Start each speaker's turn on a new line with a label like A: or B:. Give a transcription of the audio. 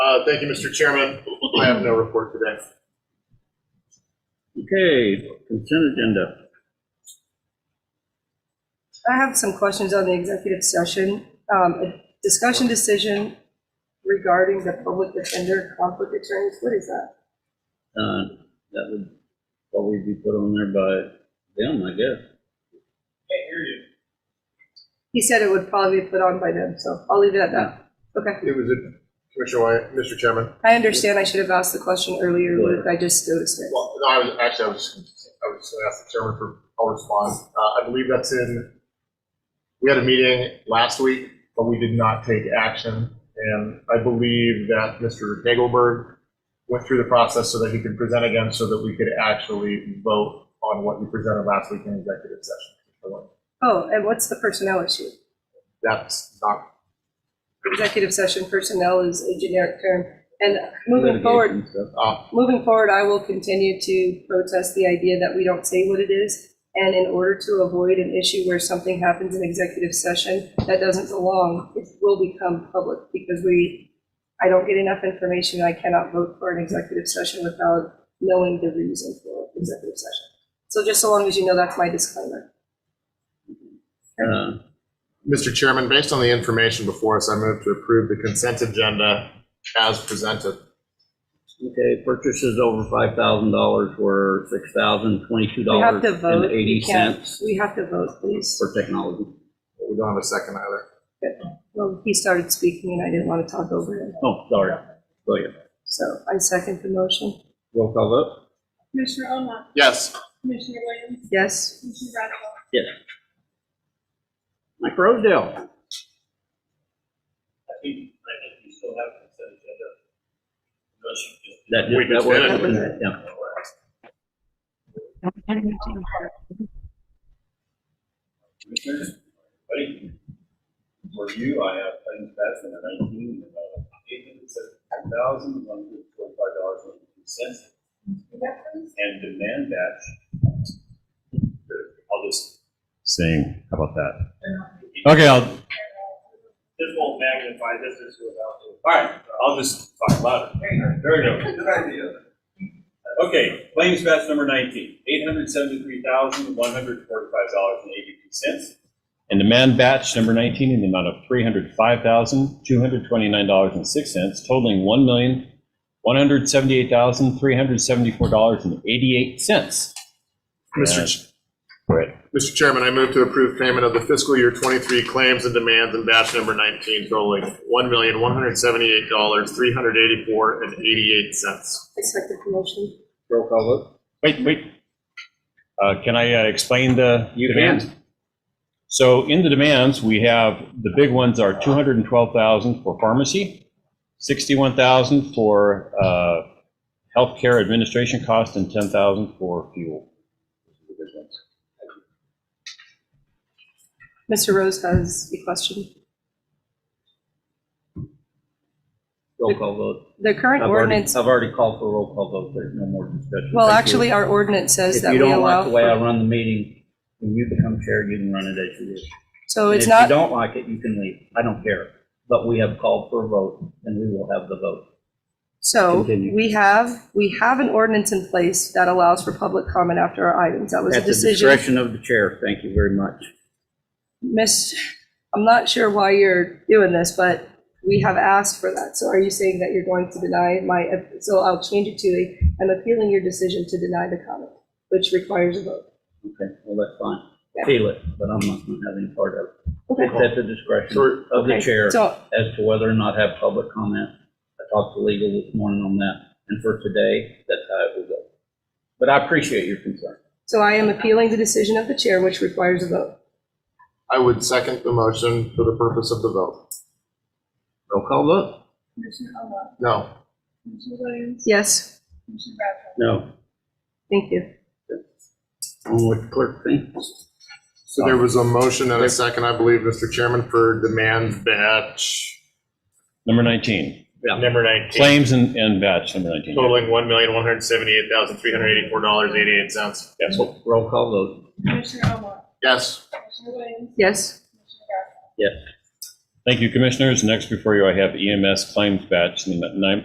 A: Uh, Thank you, Mr. Chairman. I have no report today.
B: Okay, consent agenda.
C: I have some questions on the executive session. Um, a Discussion decision regarding the public defender conflict attorneys, what is that?
B: Uh, That would probably be put on there by them, I guess.
C: He said it would probably be put on by them, so I'll leave it at that. Okay,
A: It was a, Commissioner Wyatt, Mr. Chairman.
C: I understand I should have asked the question earlier, Luke, I just noticed it.
A: Well, no, I was, actually, I was, just- I was just gonna ask the chairman for, I'll respond. Uh, I believe that's in, we had a meeting last week, but we did not take action. And I believe that Mr. Dagelberg went through the process so that he could present again, so that we could actually vote on what we presented last week in executive session.
C: Oh, and what's the personnel issue?
A: That's not
C: Executive session personnel is a generic term. And moving forward,
B: Litigation stuff.
A: Uh,
C: moving forward, I will continue to protest the idea that we don't say what it is. And in order to avoid an issue where something happens in executive session that doesn't belong, it will become public because we, I don't get enough information. I cannot vote for an executive session without knowing the reason for executive session. So just so long as you know, that's my disclaimer.
B: Uh,
A: Mr. Chairman, based on the information before us, I move to approve the consent agenda as presented.
B: Okay, purchases over five thousand dollars were six thousand twenty-two
C: We
B: dollars
C: have to vote.
B: and
C: We
B: eighty
C: can't-
B: cents
C: We have to vote, please.
B: for technology.
A: We don't have a second either.
C: Well, he started speaking and I didn't want to talk over him,
B: Oh, sorry. Go ahead.
C: so I second the motion.
B: Roll call vote?
D: Commissioner Omar,
A: Yes,
D: Commissioner Williams,
C: Yes?
D: Commissioner Bradshaw.
B: Mike Rosedale.
E: I think, I think we still have consent agenda. Unless you just-
A: We
B: That, that
A: just
B: was,
A: did
C: it. That was it.
B: yeah.
E: Commissioners, buddy, for you, I have ten thousand and nineteen, and I have eight hundred seventy-five thousand, one hundred forty-five dollars and two cents. And demand that. I'll just. Saying, how about that?
F: Okay, I'll,
E: This won't magnify, this is without. All right, I'll just talk louder. There we go. Good idea. Okay, claims batch number nineteen, eight hundred seventy-three thousand, one hundred forty-five dollars and eighty-two cents.
F: and demand batch number 19 in the amount of $305,229.06, totaling $1,178,374.88.
A: Mr.
F: Yes.
A: Ch-
F: Right.
A: Mr. Chairman, I move to approve payment of the fiscal year 23 claims and demands in batch number 19 totaling $1,178,384.88.
C: I second the motion.
B: Roll call vote?
F: Wait, wait. Uh, Can I uh, explain the
B: You
F: demands?
B: can.
F: So in the demands, we have, the big ones are 212,000 for pharmacy, 61,000 for uh, healthcare administration cost, and 10,000 for fuel.
C: Mr. Rose has a question.
B: Roll call vote.
C: The current
B: I've already-
C: ordinance,
B: I've already called for roll call vote. There's no more discussion.
C: well,
B: Thank you.
C: actually, our ordinance says that
B: If you
C: we
B: don't like
C: allow.
B: the way I
C: for-
B: run the meeting, when you become chair, you can run it as you wish.
C: So it's
B: If you
C: not,
B: don't like it, you can leave. I don't care. But we have called for a vote, and we will have the vote.
C: so
B: Continue.
C: we have, we have an ordinance in place that allows for public comment after our items. That was a
B: At the
C: decision.
B: discretion of the chair. Thank you very much.
C: Miss, I'm not sure why you're doing this, but we have asked for that. So are you saying that you're going to deny my, so I'll change it to, a- I'm appealing your decision to deny the comment, which requires a vote.
B: Okay, well, that's fine.
C: Yeah.
B: Feel it, but I'm not going to have any part of it. It's
C: Okay.
B: at the discretion
A: Sure.
B: of the
C: Okay,
B: chair
C: So
B: as to whether or not have public comment. I talked to legal this morning on that, and for today, that's how it will go. But I appreciate your concern.
C: So I am appealing the decision of the chair, which requires a vote.
A: I would second the motion for the purpose of the vote.
B: Roll call vote?
D: Commissioner Omar,
A: No.
D: Commissioner Williams,
C: Yes,
D: Commissioner Bradshaw.
B: No.
C: thank you.
B: On with clerk thing.
A: So there was a motion and a second, I believe, Mr. Chairman, for demand batch
F: Number 19,
A: number 19.
F: claims and and batch number 19.
A: totaling one million, one hundred seventy-eight thousand, three hundred eighty-four dollars, eighty-eight cents. Yes.
B: Roll call vote.
D: Commissioner Omar,
A: Yes.
D: Commissioner Williams,
C: Yes,
D: Commissioner Bradshaw.
F: E Thank you, commissioners. Next before you, I have EMS claims batch, num- nine-